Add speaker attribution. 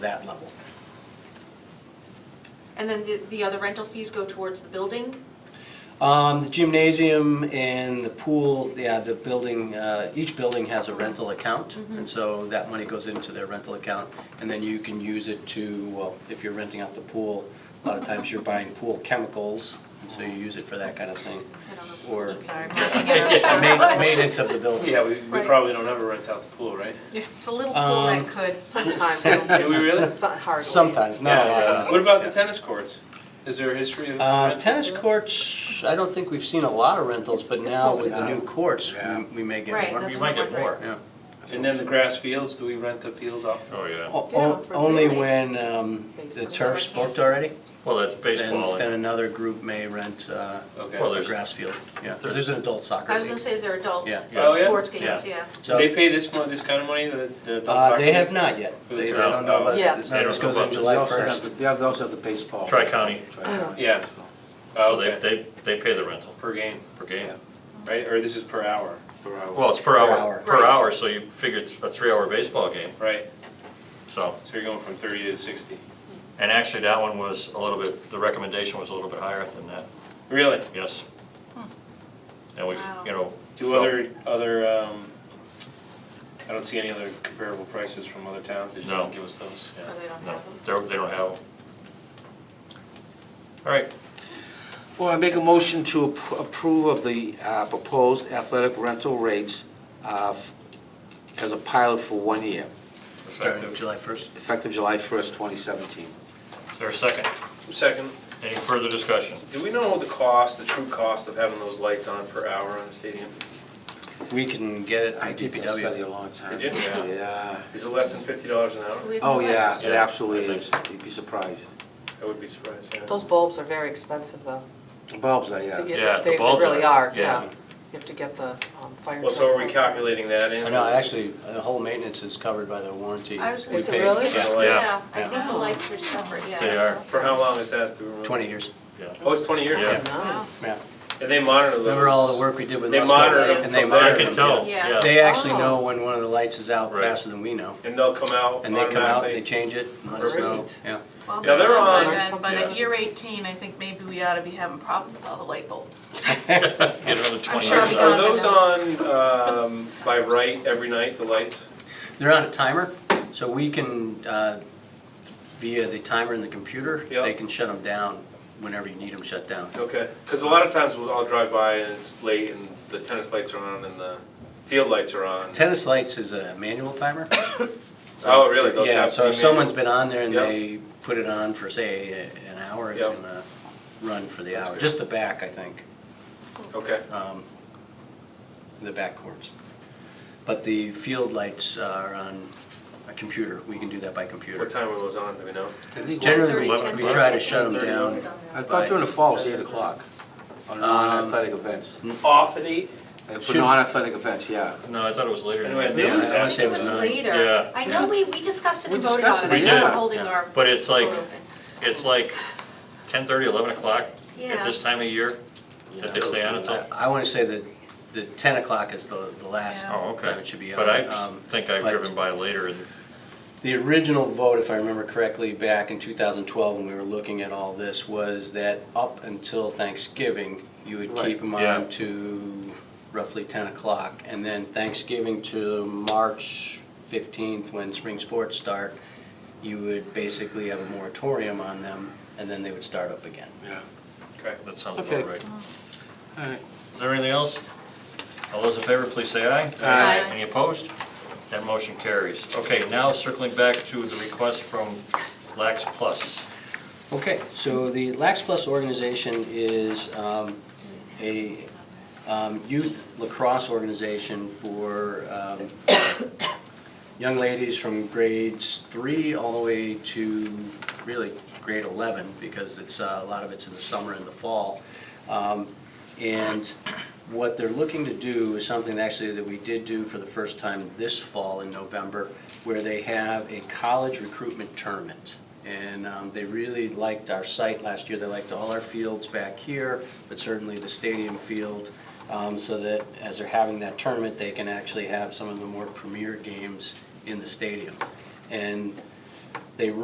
Speaker 1: that level.
Speaker 2: And then the, the other rental fees go towards the building?
Speaker 1: Um, the gymnasium and the pool, yeah, the building, uh, each building has a rental account.
Speaker 2: Mm-hmm.
Speaker 1: And so that money goes into their rental account and then you can use it to, well, if you're renting out the pool, a lot of times you're buying pool chemicals, and so you use it for that kind of thing.
Speaker 2: I don't know.
Speaker 1: Or
Speaker 2: I'm sorry.
Speaker 1: ma- maintenance of the building.
Speaker 3: Yeah, we, we
Speaker 2: Right.
Speaker 3: probably don't ever rent out the pool, right?
Speaker 4: It's a little pool
Speaker 1: Um,
Speaker 4: that could sometimes.
Speaker 3: Do we really?
Speaker 4: So- Hardly.
Speaker 1: Sometimes, not a lot.
Speaker 3: Yeah.
Speaker 1: of
Speaker 3: What
Speaker 1: it,
Speaker 3: about
Speaker 1: yeah.
Speaker 3: the tennis courts? Is there a history of?
Speaker 1: Uh,
Speaker 3: rental
Speaker 1: tennis
Speaker 3: there?
Speaker 1: courts, I don't think we've seen a lot of rentals, but
Speaker 4: It's- it's
Speaker 1: now
Speaker 4: mostly
Speaker 1: with the new
Speaker 5: out.
Speaker 1: courts, we-
Speaker 5: Yeah.
Speaker 1: we may get
Speaker 2: Right,
Speaker 1: more.
Speaker 2: that's
Speaker 6: You
Speaker 2: what
Speaker 6: might
Speaker 2: I'm
Speaker 6: get
Speaker 2: wondering.
Speaker 6: more.
Speaker 1: Yeah.
Speaker 3: And then the grass fields, do we rent the fields off?
Speaker 6: Oh, yeah.
Speaker 1: O-
Speaker 4: Yeah,
Speaker 1: o-
Speaker 4: for
Speaker 1: Only
Speaker 2: really-
Speaker 1: when um, the
Speaker 4: Baseball.
Speaker 1: turf's booked already,
Speaker 6: Well, that's
Speaker 1: then,
Speaker 6: baseball.
Speaker 1: then another group may rent uh,
Speaker 3: Okay.
Speaker 6: Well,
Speaker 1: a
Speaker 6: there's-
Speaker 1: grass field. Yeah,
Speaker 6: there's-
Speaker 1: there's an adult soccer
Speaker 2: I was gonna
Speaker 1: league.
Speaker 2: say, is there adult
Speaker 1: Yeah.
Speaker 3: Oh, yeah?
Speaker 2: sports games, yeah?
Speaker 3: Do they
Speaker 1: So,
Speaker 3: pay this mon, this kind of money, the, the adult
Speaker 1: uh,
Speaker 3: soccer?
Speaker 1: they have not yet.
Speaker 3: Who
Speaker 1: They they
Speaker 3: turf?
Speaker 1: don't know, but
Speaker 4: Yeah.
Speaker 6: They
Speaker 1: this
Speaker 6: don't
Speaker 1: goes
Speaker 6: know
Speaker 1: in
Speaker 6: about
Speaker 1: July
Speaker 5: They also have
Speaker 1: 1st.
Speaker 5: the- They have- they also have the baseball.
Speaker 6: Tri-county.
Speaker 5: Tri-county.
Speaker 3: Yeah,
Speaker 6: So
Speaker 3: oh,
Speaker 6: they,
Speaker 3: okay,
Speaker 6: they, they pay the rental
Speaker 3: per game,
Speaker 6: per game.
Speaker 5: Yeah.
Speaker 3: right, or this is per hour? Per
Speaker 6: Well, it's per
Speaker 1: hour.
Speaker 6: hour, per
Speaker 2: Right.
Speaker 6: hour, so you figure it's a three-hour baseball game,
Speaker 3: Right,
Speaker 6: so.
Speaker 3: so you're going from thirty to sixty,
Speaker 6: And actually, that one was a little bit, the recommendation was a little bit higher than that,
Speaker 3: really?
Speaker 6: yes. And we've,
Speaker 2: Wow.
Speaker 6: you know.
Speaker 3: Do
Speaker 6: felt-
Speaker 3: other, other, um, I don't see any other comparable prices from other towns, they just
Speaker 6: No.
Speaker 3: don't give us those, yeah.
Speaker 2: Or they don't
Speaker 6: No,
Speaker 2: have them?
Speaker 6: they're, they don't have them. All right,
Speaker 5: Well, I make a motion to ap- approve of the uh, proposed athletic rental rates uh, f- as a pilot for one year,
Speaker 1: Starting July 1st.
Speaker 5: effective July 1st, 2017.
Speaker 6: is there a second?
Speaker 3: Second,
Speaker 6: Any further discussion?
Speaker 3: do we know the cost, the true cost of having those lights on per hour on the stadium?
Speaker 1: We can get it
Speaker 5: I
Speaker 1: from
Speaker 5: did that study
Speaker 1: DPW.
Speaker 5: a long time.
Speaker 3: Did you?
Speaker 5: ago. Yeah.
Speaker 3: Is it less than fifty dollars an hour?
Speaker 2: We have no
Speaker 5: Oh, yeah,
Speaker 2: plans.
Speaker 5: it
Speaker 3: Yeah.
Speaker 5: absolutely is. You'd be surprised.
Speaker 3: I would be surprised, yeah.
Speaker 4: Those bulbs are very expensive, though.
Speaker 5: The Bulbs, I,
Speaker 4: They
Speaker 5: yeah.
Speaker 4: get-
Speaker 6: Yeah, the
Speaker 4: They they
Speaker 6: bulbs
Speaker 4: really
Speaker 6: are,
Speaker 4: are, yeah.
Speaker 6: yeah.
Speaker 4: You have to get the um, fire.
Speaker 3: Well, so are we
Speaker 4: trucks.
Speaker 3: calculating that in?
Speaker 1: No, actually, the whole maintenance is covered by the warranty.
Speaker 2: I was
Speaker 1: We
Speaker 2: gonna
Speaker 4: Is it
Speaker 1: pay-
Speaker 4: really?
Speaker 1: yeah,
Speaker 3: Yeah.
Speaker 2: Yeah, I
Speaker 1: Yeah.
Speaker 2: think the lights are separate, yeah.
Speaker 6: They are.
Speaker 3: For how long is that? Do we remember?
Speaker 1: 20 years,
Speaker 6: Yeah.
Speaker 3: Oh, it's twenty years?
Speaker 6: Yeah.
Speaker 4: Nice.
Speaker 1: yeah.
Speaker 3: And they monitor those?
Speaker 1: Remember all the work we did with
Speaker 3: They
Speaker 1: Los
Speaker 3: monitor
Speaker 1: Cobra?
Speaker 3: them
Speaker 1: And they
Speaker 3: from there.
Speaker 6: I
Speaker 1: monitor
Speaker 6: can
Speaker 1: them.
Speaker 6: tell,
Speaker 2: Yeah.
Speaker 6: yeah.
Speaker 1: They actually
Speaker 4: Oh.
Speaker 1: know when one of the lights is out
Speaker 6: Right.
Speaker 1: faster than we know.
Speaker 3: And they'll come out
Speaker 1: And they come out, they
Speaker 3: automatically?
Speaker 1: change it, and let us know,
Speaker 4: Great.
Speaker 1: yeah.
Speaker 7: Well,
Speaker 3: Yeah, they're on.
Speaker 7: then, But
Speaker 6: Yeah.
Speaker 7: at year eighteen, I think maybe we ought to be having problems with all the light bulbs.
Speaker 6: Get another twenty
Speaker 7: sure
Speaker 6: years
Speaker 7: we
Speaker 6: out of
Speaker 3: Are
Speaker 6: it.
Speaker 7: got-
Speaker 3: those on, um, by right every night, the lights?
Speaker 1: They're on a timer, so we can, uh, via the timer in the computer,
Speaker 3: Yeah.
Speaker 1: they can shut them down whenever you need them shut down.
Speaker 3: Okay, because a lot of times we'll all drive by and it's late and the tennis lights are on and the field lights are on.
Speaker 1: Tennis lights is a manual timer.
Speaker 3: Oh, really? Those
Speaker 1: Yeah,
Speaker 3: have to
Speaker 1: so
Speaker 3: be
Speaker 1: if someone's
Speaker 3: manual?
Speaker 1: been on there and
Speaker 3: Yeah.
Speaker 1: they put it on for, say, a- an hour, it's
Speaker 3: Yeah.
Speaker 1: gonna run for the
Speaker 3: That's
Speaker 1: hour,
Speaker 3: good.
Speaker 1: just the back, I think,
Speaker 3: Okay,
Speaker 1: um, the back courts. But the field lights are on a computer, we can do that by computer.
Speaker 3: what time were those on, do we know?
Speaker 5: I think-
Speaker 1: Generally,
Speaker 2: Eleven
Speaker 1: we- we
Speaker 2: o'clock.
Speaker 1: try to shut them
Speaker 3: Thirty.
Speaker 1: down.
Speaker 5: I thought during the fall, it's 8 o'clock on non-athletic events.
Speaker 3: Off at eight?
Speaker 5: Uh, For
Speaker 1: Should-
Speaker 5: non-athletic events, yeah.
Speaker 6: No, I thought it was later. than
Speaker 3: Anyway,
Speaker 6: that.
Speaker 3: they-
Speaker 1: Yeah, I
Speaker 2: I
Speaker 1: wanna
Speaker 2: think
Speaker 1: say
Speaker 2: it was
Speaker 1: nine.
Speaker 2: later.
Speaker 6: Yeah.
Speaker 2: I know, we, we discussed it
Speaker 5: We
Speaker 2: and voted on
Speaker 5: discussed
Speaker 2: it.
Speaker 6: it,
Speaker 2: I know
Speaker 6: yeah.
Speaker 2: we're holding
Speaker 1: Yeah.
Speaker 2: our.
Speaker 6: But it's like,
Speaker 2: vote open.
Speaker 6: it's like 10:30, 11 o'clock at
Speaker 2: Yeah.
Speaker 6: this time of year that they stay on until.
Speaker 1: I- I want to say that the 10 o'clock is the, the last
Speaker 7: Yeah.
Speaker 6: Oh,
Speaker 1: time
Speaker 6: okay.
Speaker 1: it should be on.
Speaker 6: But I
Speaker 1: Um,
Speaker 6: think I've
Speaker 1: but
Speaker 6: driven by later and,
Speaker 1: The original vote, if I remember correctly, back in 2012, when we were looking at all this, was that up until Thanksgiving, you would keep
Speaker 5: Right.
Speaker 1: them
Speaker 6: Yeah.
Speaker 1: on to roughly 10 o'clock. And then Thanksgiving to March 15th, when spring sports start, you would basically have a moratorium on them, and then they would start up again.
Speaker 5: Yeah.
Speaker 3: Okay.
Speaker 6: that sounds
Speaker 5: Okay.
Speaker 6: about right.
Speaker 5: All right.
Speaker 6: Is there anything else? All those in favor, please say aye.
Speaker 5: Aye.
Speaker 6: Any opposed? That motion carries. Okay, now circling back to the request from Lax Plus.
Speaker 1: Okay, so the Lax Plus organization is um, a um, youth lacrosse organization for um, young ladies from grades three all the way to really grade 11, because it's, uh, a lot of it's in the summer and the fall. Um, And what they're looking to do is something actually that we did do for the first time this fall in November, where they have a college recruitment tournament. And um, they really liked our site last year, they liked all our fields back here, but certainly the stadium field, um, so that as they're having that tournament, they can actually have some of the more premier games in the stadium. And they